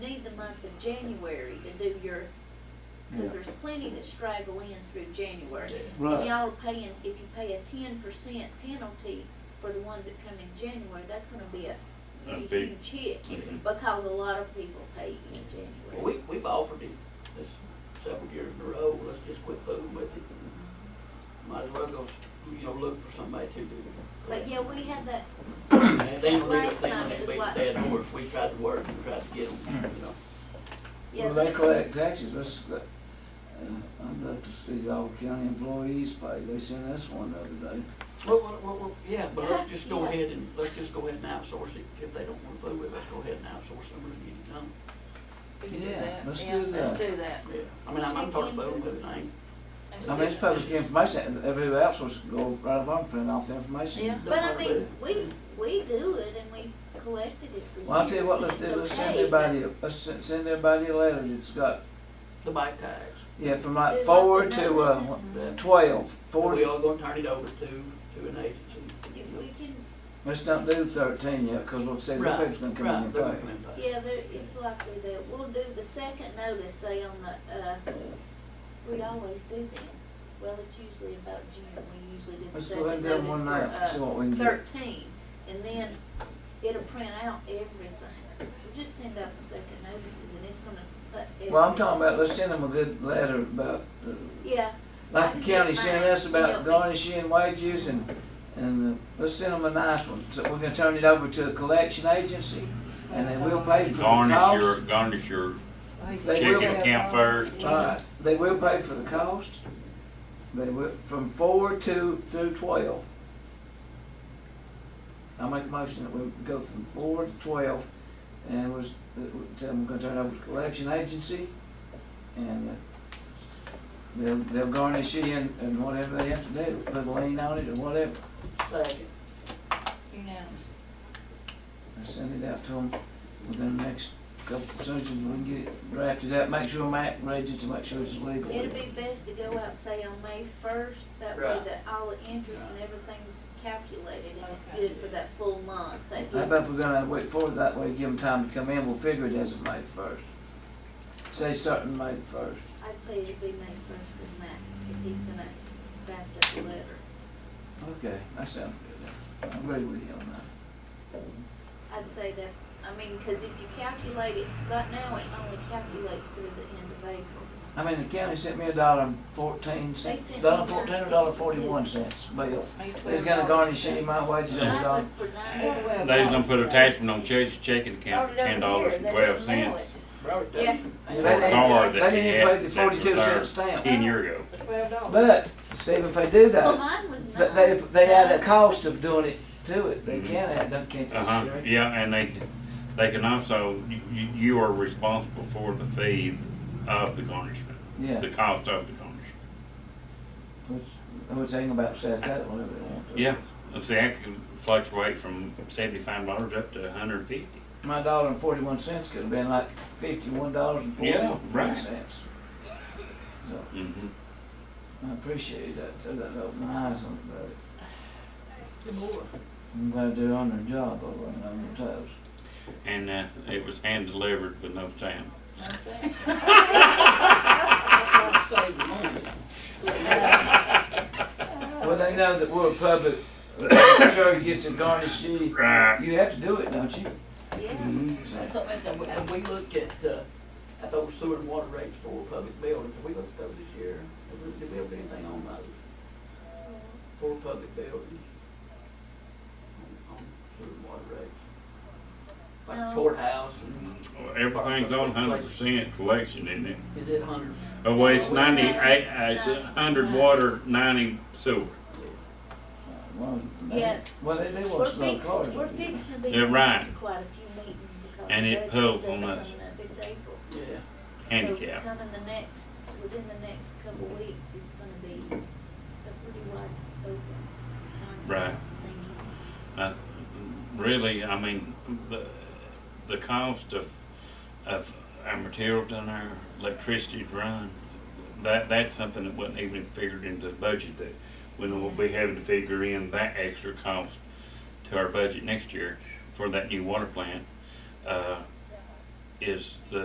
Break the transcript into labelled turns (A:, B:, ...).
A: month of January to do your,
B: Yeah.
A: cause there's plenty that straggle in through January.
B: Right.
A: Y'all are paying, if you pay a ten percent penalty for the ones that come in January, that's gonna be a,
C: A
A: a
C: big-
A: huge hit.
C: Mhm.
A: Because a lot of people pay in
D: Well,
A: January.
D: we, we've offered it this several years in a row, let's just quit fooling with it. Might as well go, you know, look for somebody to do it.
A: But yeah, we had that,
D: And if they don't leave us,
A: last
D: they
A: time
D: don't
A: it was
D: beat
A: like-
D: the dead horse, we tried to work and tried to get them, you know.
A: yeah,
B: Well, they collect taxes, that's, that, uh, I'd like to see the old county employees pay, they sent us one the other day.
D: Well, well, well, well, yeah, but let's just go
A: Yeah.
D: ahead and, let's just go ahead and outsource it, if they don't wanna fool with us, go ahead and outsource them and get it done.
E: We can do
B: Yeah,
E: that.
B: let's
E: Yeah,
B: do
E: Let's
B: that.
E: do that.
D: Yeah, I mean, I'm, I'm part of fooling with it, I ain't.
E: Let's
B: I
E: do
B: mean, it's
E: that.
B: public information, and everybody else was go right up on print off the information.
E: Yeah.
A: but I mean, we, we do it and we collected it for years.
B: Well, I'll tell you what,
A: and
B: let's do,
A: it's
B: let's send
A: okay, but-
B: everybody, a- let's sen- send everybody a letter that's got,
D: The bike tags,
B: yeah, from like
A: It's
B: four
A: like the
B: to,
A: numbers,
B: uh,
A: isn't
D: that,
B: twelve, four,
D: we all gonna turn it over to, to an agency.
A: If we can,
B: let's don't do thirteen yet, cause we'll see, the
D: Right,
B: people's gonna come in
D: right,
B: and
D: they're gonna
B: pay.
D: come in and pay.
A: yeah, there, it's likely that we'll do the second notice, say on the, uh, we always do that. Well, it's usually about June, we usually do the
B: Let's go ahead
A: second
B: and do one
A: notice
B: now, see
A: for,
B: what we
A: uh,
B: can do.
A: thirteen, and then it'll print out everything. We'll just send out the second notices and it's gonna put everything.
B: Well, I'm talking about, let's send them a good letter about, uh,
A: Yeah,
B: like the county sent us about
A: Yeah.
B: garnishing wages and, and uh, let's send them a nice one. So we're gonna turn it over to a collection agency and then we'll pay for the
C: Garnish your,
B: cost.
C: garnish your
B: They
C: chicken
B: will-
C: account first.
B: Alright, Uh, they will pay for the cost. They will, from four to, through twelve. I make a motion that we go from four to twelve and was, tell them we're gonna turn it over to collection agency and uh, they'll, they'll garnish it and, and whatever they have to do, put a lien on it or whatever.
D: Second.
E: Unanimous.
B: I send it out to them within the next couple, as soon as we can get it drafted out, make sure Matt reads it to make sure it's legal.
A: it'd be best to go out, say on May first, that way
D: Right.
A: that all the interest and everything's calculated and it's good for that full month. That
B: I
A: gives
B: bet if we're gonna wait for it that way, give them time to come in, we'll figure it as of May first. Say starting May first.
A: I'd say it'd be May first with Matt, if he's gonna draft up the letter.
B: Okay, that sounds good. I'm ready with you on
A: I'd say that, I mean, cause if you calculate it, right now, it only calculates through the end of April.
B: that. I mean, the county sent me a dollar and fourteen cents,
A: They sent
B: dollar
A: me
B: fourteen or
A: nine
B: dollar
A: sixty-two.
B: forty-one cents bill.
E: May
B: They's gonna
E: 12.
B: garnish any of my wages on the
A: Mine
B: dollar.
A: was for nine dollars.
C: They's gonna put a attachment on Chase checking account for
A: Over
C: ten dollars and
A: there, they
C: twelve
A: don't mail
C: cents
D: Robert
A: Yeah.
D: Dixon.
B: They
C: for a car
B: didn't, they
C: that he
B: didn't pay the
C: had that was
B: forty-two cent
C: there
B: stamp.
C: ten year ago.
E: Twelve dollars.
B: But, see, if they do
A: Well,
B: that,
A: mine was
B: but
A: nine.
B: they, they add a cost of doing it to it. They
C: Mhm.
B: can add, them, can't they?
C: Uh-huh,
B: Sherry?
C: yeah, and they, can- they can also, you- you, you are responsible for the fee of the garnishment,
B: Yeah.
C: the cost of the garnishment.
B: Which, which they can about set that whenever they want to.
C: Yeah, Uh, see, that can fluctuate from seventy-five dollars up to a hundred and fifty.
B: My dollar and forty-one cents could have been like fifty-one dollars and
C: Yeah,
B: forty-one
C: right.
B: cents. So,
C: Mm-hmm.
B: I appreciate that, too, that opened my eyes on it, but
D: Good boy.
B: I'm glad they're on their job over and on their toes.
C: And, uh, it was hand-delivered with no stamp.
E: Okay.
D: I'll save the money.
B: Well, they know that we're a public, sure gets a garnish sheet.
C: Right. Mm-hmm.
B: You have to do it, don't you? uh,
A: Yeah,
D: That's something, that's, something. and we looked at, uh, at those sewer and water rates for public buildings, Have we looked at those this year, Have we- did we have anything on those?
B: Mm-hmm.
D: For public buildings? On on sewer and water rates? Like the
A: No.
D: courthouse and,
C: Well, Everything's on hundred percent collection, isn't it?
D: is it hundred?
C: Oh, well, it's ninety-eight, uh, it's a hundred water, ninety sewer.
B: Well, they-
A: Yeah.
B: Well, they do
A: we're
B: want slow
A: fixing,
B: cars.
A: we're fixing to be.
C: Yeah, right.
A: into Quite a few meetings because.
C: And
A: the
C: it
A: budget's
C: pulls
A: just
C: on us.
A: coming up. It's April.
D: Yeah.
C: handicap.
A: So coming the next, within the next couple weeks, it's gonna be a pretty wide open. concept
C: Right.
A: thing.
C: Uh, Really, I mean, the, the cost of, of our material down there, electricity to run, that, that's something that wasn't even figured into the budget that we will be having to figure in that extra cost to our budget next year for that new water plant, uh, is the